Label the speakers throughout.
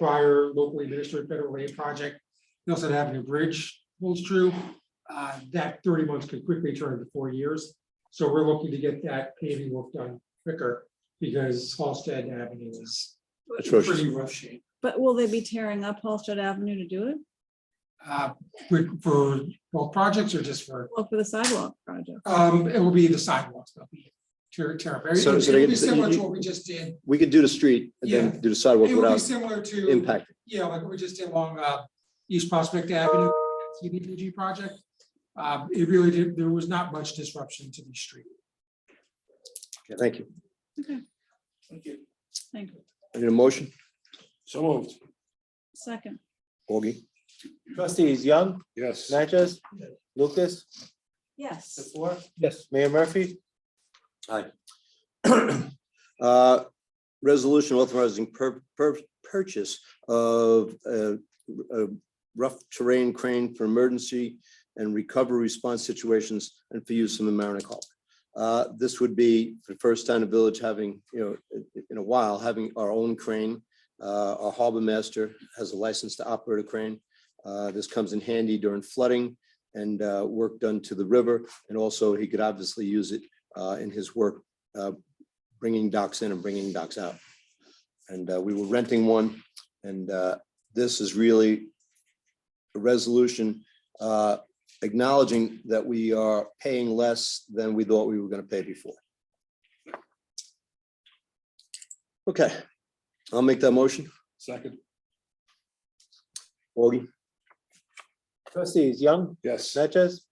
Speaker 1: prior locally administered federal aid project, Nelson Avenue Bridge holds true. Uh, That thirty months could quickly turn into four years. So we're looking to get that paving work done quicker because Halsted Avenue is
Speaker 2: Atrocious.
Speaker 1: pretty rough shape.
Speaker 3: But will they be tearing up Halsted Avenue to do it?
Speaker 1: Uh, for- For both projects or just for,
Speaker 3: Well, for the sidewalk project?
Speaker 1: um, it will be the sidewalks, they'll be tear, tear up.
Speaker 2: So- so they-
Speaker 1: It'll be similar to what we just did.
Speaker 2: We could do the street and
Speaker 1: Yeah.
Speaker 2: then do the sidewalk
Speaker 1: It will be
Speaker 2: without
Speaker 1: similar to.
Speaker 2: impact.
Speaker 1: Yeah, like we just did along uh, East Prospect Avenue, CDPG project. Um, It really did, there was not much disruption to the street.
Speaker 2: Okay, Thank you.
Speaker 3: Thank you.
Speaker 2: I need a motion.
Speaker 4: So moved.
Speaker 3: Second,
Speaker 2: Augie,
Speaker 5: Trustees Young,
Speaker 4: Yes.
Speaker 5: Natchez, Lucas,
Speaker 3: yes,
Speaker 5: before? Yes. Mayor Murphy?
Speaker 2: Uh, resolution authorizing per, per, purchase of uh, a rough terrain crane for emergency and recovery response situations and for use in the Mariner Call. Uh, this would be the first time the village having, you know, in- in a while, having our own crane. Uh, our harbor master has a license to operate a crane. Uh, this comes in handy during flooding and uh, work done to the river. And also he could obviously use it uh, in his work, uh, bringing docks in and bringing docks out. And uh, we were renting one and uh, this is really a resolution uh, acknowledging that we are paying less than we thought we were going to pay before. Okay, I'll make that motion.
Speaker 4: Second.
Speaker 2: Augie,
Speaker 5: Trustees Young,
Speaker 4: Yes.
Speaker 5: Natchez?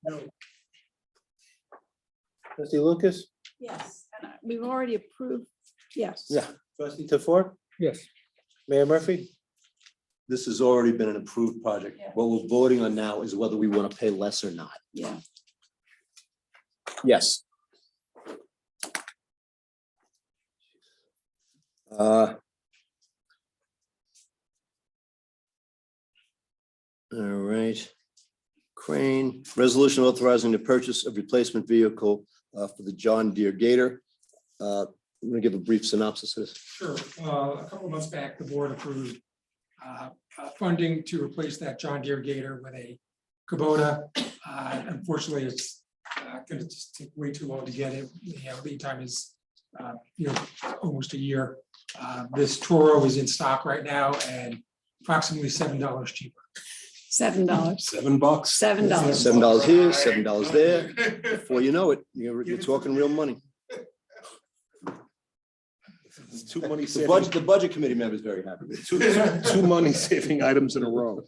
Speaker 5: Trustee Lucas,
Speaker 3: yes. And I- We've already approved, yes.
Speaker 2: Yeah.
Speaker 5: trustee Tofor?
Speaker 1: Yes.
Speaker 5: Mayor Murphy?
Speaker 2: this has already been an approved project.
Speaker 3: Yeah.
Speaker 2: What we're voting on now is whether we want to pay less or not.
Speaker 3: Yeah,
Speaker 2: Yes. All right. Crane, resolution authorizing the purchase of replacement vehicle uh, for the John Deere Gator. Uh, I'm going to give a brief synopsis of this.
Speaker 1: Sure, uh, a couple months back, the board approved uh, uh, funding to replace that John Deere Gator with a Kubota. Uh, Unfortunately, it's going to just take way too long to get it. You know, lead time is, uh, you know, almost a year. Uh, This Toro is in stock right now and approximately seven dollars cheaper.
Speaker 3: seven dollars,
Speaker 4: Seven bucks.
Speaker 3: seven dollars.
Speaker 2: Seven dollars here, seven dollars there. Before you know it, you're, you're talking real money.
Speaker 4: It's Two money
Speaker 2: The
Speaker 4: saving,
Speaker 2: budget, the budget committee member is very happy. with it.
Speaker 4: two, two- two money saving items in a row.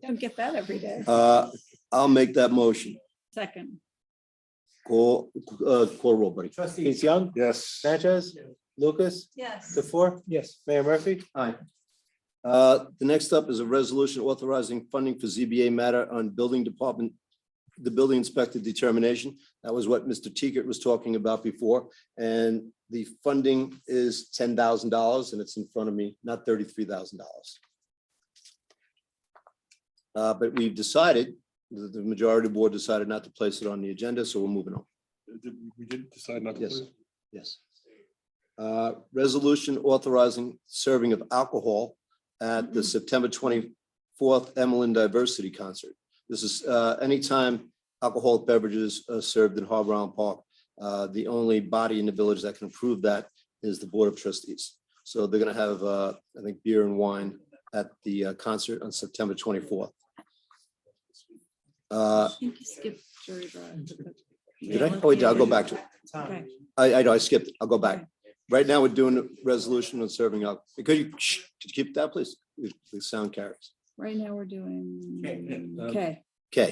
Speaker 3: Don't get that every day.
Speaker 2: Uh, I'll make that motion.
Speaker 3: Second,
Speaker 2: Call, uh, call roll, buddy.
Speaker 5: Trustees Young,
Speaker 4: Yes.
Speaker 5: Natchez, Lucas,
Speaker 3: yes.
Speaker 5: Tofor? Yes. Mayor Murphy?
Speaker 2: Uh, The next up is a resolution authorizing funding for ZBA matter on building department, the building inspector determination. That was what Mr. Teagat was talking about before. And the funding is ten thousand dollars and it's in front of me, not thirty-three thousand dollars. Uh, But we've decided, the, the majority of the board decided not to place it on the agenda, so we're moving on.
Speaker 4: We did decide not to.
Speaker 2: Yes.
Speaker 4: play.
Speaker 2: Yes. Uh, Resolution authorizing serving of alcohol at the September twenty-fourth Emlyn Diversity Concert. This is uh, anytime alcoholic beverages are served in Harbor Island Park. uh, The only body in the village that can approve that is the Board of Trustees. So they're going to have, uh, I think, beer and wine at the uh, concert on September twenty-fourth.
Speaker 3: I
Speaker 2: I,
Speaker 3: think you skipped jury drive. but-
Speaker 2: Did I? Oh, wait, I'll go back to it.
Speaker 3: Okay.
Speaker 2: I know, I skipped it. I'll go back. Right now, we're doing a resolution on serving up. Could you shh, could you keep that, please? The- The sound carries.
Speaker 3: Right now, we're doing,
Speaker 4: yeah, uh,
Speaker 3: okay,
Speaker 2: Okay.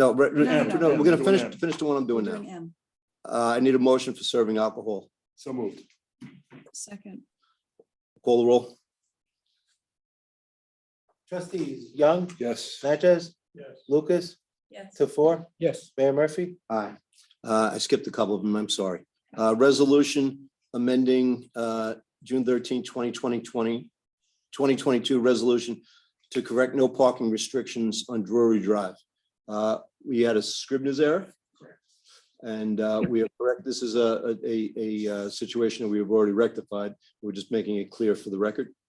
Speaker 2: No, re- re-
Speaker 3: No, no,
Speaker 2: no,
Speaker 3: no.
Speaker 2: we're gonna
Speaker 4: Doing
Speaker 2: finish,
Speaker 4: that.
Speaker 2: finish the one I'm doing
Speaker 3: doing
Speaker 2: now.
Speaker 3: M,
Speaker 2: Uh, I need a motion for serving alcohol.
Speaker 4: So moved.
Speaker 3: second,
Speaker 2: Call the roll.
Speaker 5: Trustees Young,
Speaker 4: Yes.
Speaker 5: Natchez?
Speaker 1: Yes.
Speaker 5: Lucas,
Speaker 3: yes.
Speaker 5: Tofor?
Speaker 1: Yes.
Speaker 5: Mayor Murphy?
Speaker 2: Aye. Uh, I skipped a couple of them. I'm sorry. Uh, resolution amending, uh, June 13, 2020 2022 resolution to correct no parking restrictions on Drury Drive. Uh, we had a Scribner's error. And, uh, we are correct. This is a, a, a, a, uh, situation that we have already rectified. We're just making it clear for the record.